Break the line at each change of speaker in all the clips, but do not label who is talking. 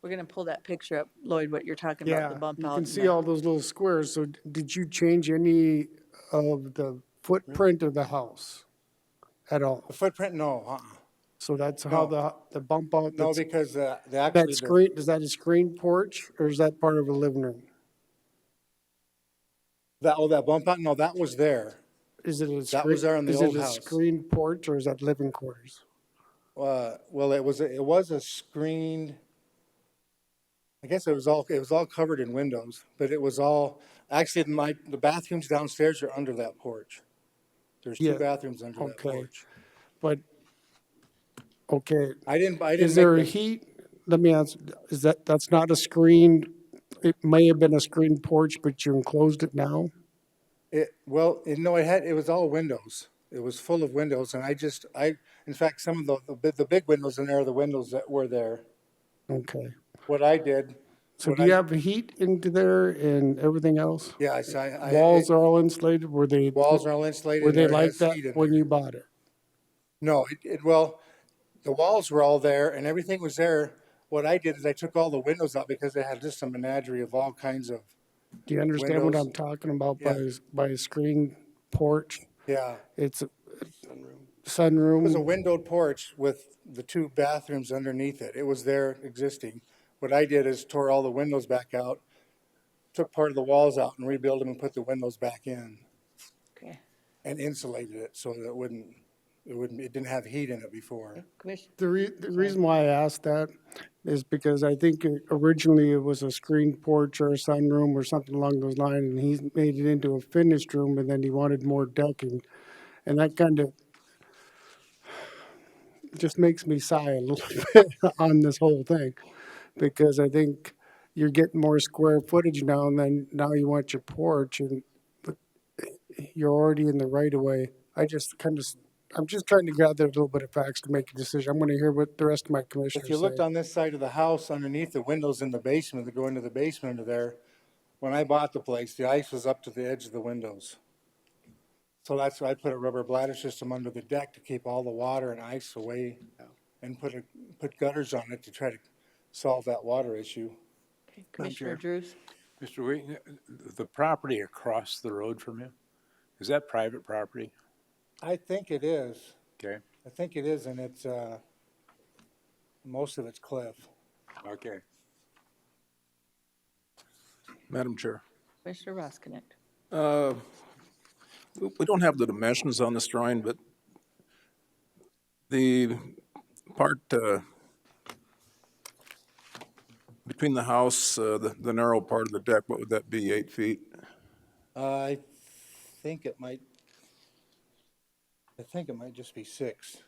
We're gonna pull that picture up, Lloyd, what you're talking about, the
Yeah,
bump
you
out.
can
and
see
that.
all those little squares. So d- did you change any of the footprint of the house at all?
The footprint, no, uh-uh.
So that's how
No.
the, the bump out,
No,
that's,
because uh, the actually.
that
the-
screen, is that a screen porch or is that part of a living room?
That, oh, that bump out, no, that was there.
Is it a
That was there
screen,
in the
is it
old
a
house.
screen porch or is that living quarters?
Uh, well, it was, a- it was a screened, I guess it was all, it was all covered in windows, but it was all, actually, my, the bathrooms downstairs are under that porch. There's
Yeah,
two bathrooms under that
okay.
porch.
But, okay,
I didn't, I didn't.
is there a
make the-
heat? Let me ask, is that, that's not a screened, it may have been a screen porch, but you enclosed it now?
It, well, it, no, it had, it was all windows. It was full of windows and I just, I, in fact, some of the, the, bi- the big windows in there are the windows that were there.
Okay.
What I did,
So
What
do you
I-
have heat into there and everything else?
yeah, I, I. I-
Walls are all insulated, were they,
Walls are all
were
insulated.
they
and there
like
has heat
that
in
when you bought it?
No, it, it, well, the walls were all there and everything was there. What I did is I took all the windows out because they had just a menagerie of all kinds of,
Do you understand what
Windows.
I'm talking about by,
Yeah.
s- by a screen porch?
yeah.
It's a
It was a
sunroom,
windowed porch with the two bathrooms underneath it. It was there existing. What I did is tore all the windows back out, took part of the walls out and rebuilt them and put the windows back in
Okay.
and insulated it so that it wouldn't, it wouldn't, it didn't have heat in it before.
Commissioner,
the re, the reason why I asked that is because I think it- originally it was a screen porch or a sunroom or something along those lines, and he made it into a finished room, and then he wanted more decking. And that kind of just makes me sigh a little bit on this whole thing, because I think you're getting more square footage now, and then now you want your porch, and but you're already in the right of way. I just kind of, I'm just trying to gather a little bit of facts to make a decision. I'm going to hear what the rest of my commissioners
If
say.
you looked on this side of the house, underneath the windows in the basement, that go into the basement under there, when I bought the place, the ice was up to the edge of the windows. So that's why I put a rubber bladder system under the deck to keep all the water and ice away and put a, put gutters on it to try to solve that water issue.
okay, Commissioner Drews,
Mr. Wheaton, uh, the property across the road from him, is that private property?
I think it is.
Okay,
I think it is, and it's, uh, most of it's cliff.
okay. Madam Chair.
Commissioner Roskinick.
Uh, We we don't have the dimensions on this drawing, but the part uh, between the house, uh, the the narrow part of the deck, what would that be, eight feet?
Uh, I think it might, I think it might just be six.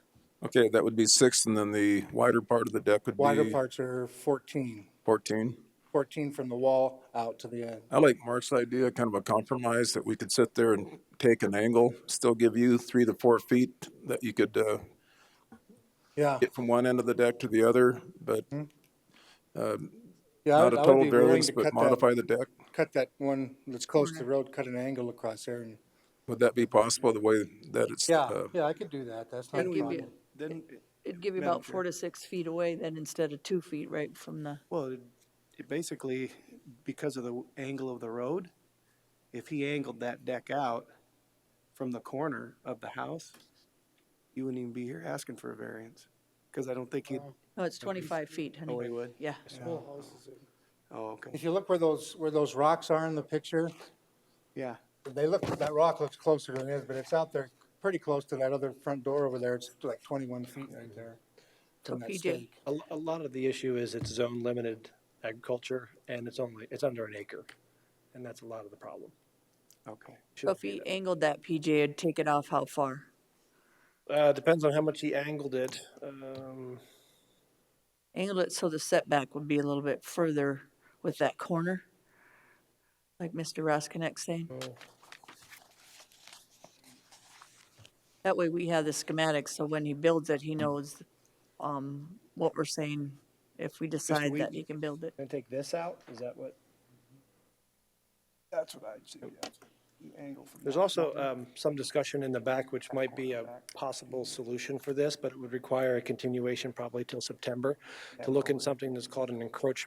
Okay, that would be six, and then the wider part of the deck would
Wider
be
parts are 14,
14.
14 from the wall out to the end.
I like Mark's idea, kind of a compromise, that we could sit there and take an angle, still give you three to four feet that you could uh,
Yeah,
get from one end of the deck to the other, but
yeah, I
not
would
a
Mm-hmm. I would
total
be willing
variance,
to
but
cut that,
modify the deck.
cut that one that's close to the road, cut an angle across there and,
Would that be possible, the way that it's?
yeah,
uh,
yeah, I could do that, that's not a
It'd give
problem.
you, it'd give you about four to six feet away then instead of two feet right from the,
Well, it- it basically, because of the w- angle of the road, if he angled that deck out from the corner of the house, you wouldn't even be here asking for a variance, because I don't think he'd,
no, oh, it's twenty-five feet, honey.
oh, he would?
Yeah,
Oh, okay,
If you look where those, where those rocks are in the picture,
yeah.
they look, that rock looks closer than it is, but it's out there pretty close to that other front door over there, it's like 21 feet right there.
so
from that
PJ,
stake.
A, l- a lot of the issue is it's zone limited agriculture and it's only, it's under an acre. And that's a lot of the problem.
Okay.
so if he angled that, PJ, it'd take it off how far?
Uh, depends on how much he angled it. Um,
Angled it so the setback would be a little bit further with that corner, like Mr. Roskinek saying. That way we have the schematics, so when he builds it, he knows, um, what we're saying, if we decide that
Wheat?
he can build it.
gonna take this out? Is that what?
That's what I'd see, angle from
There's also, um, some discussion in the back, which might be a possible solution for this, but it would require a continuation probably till September to look in something that's called an encroachment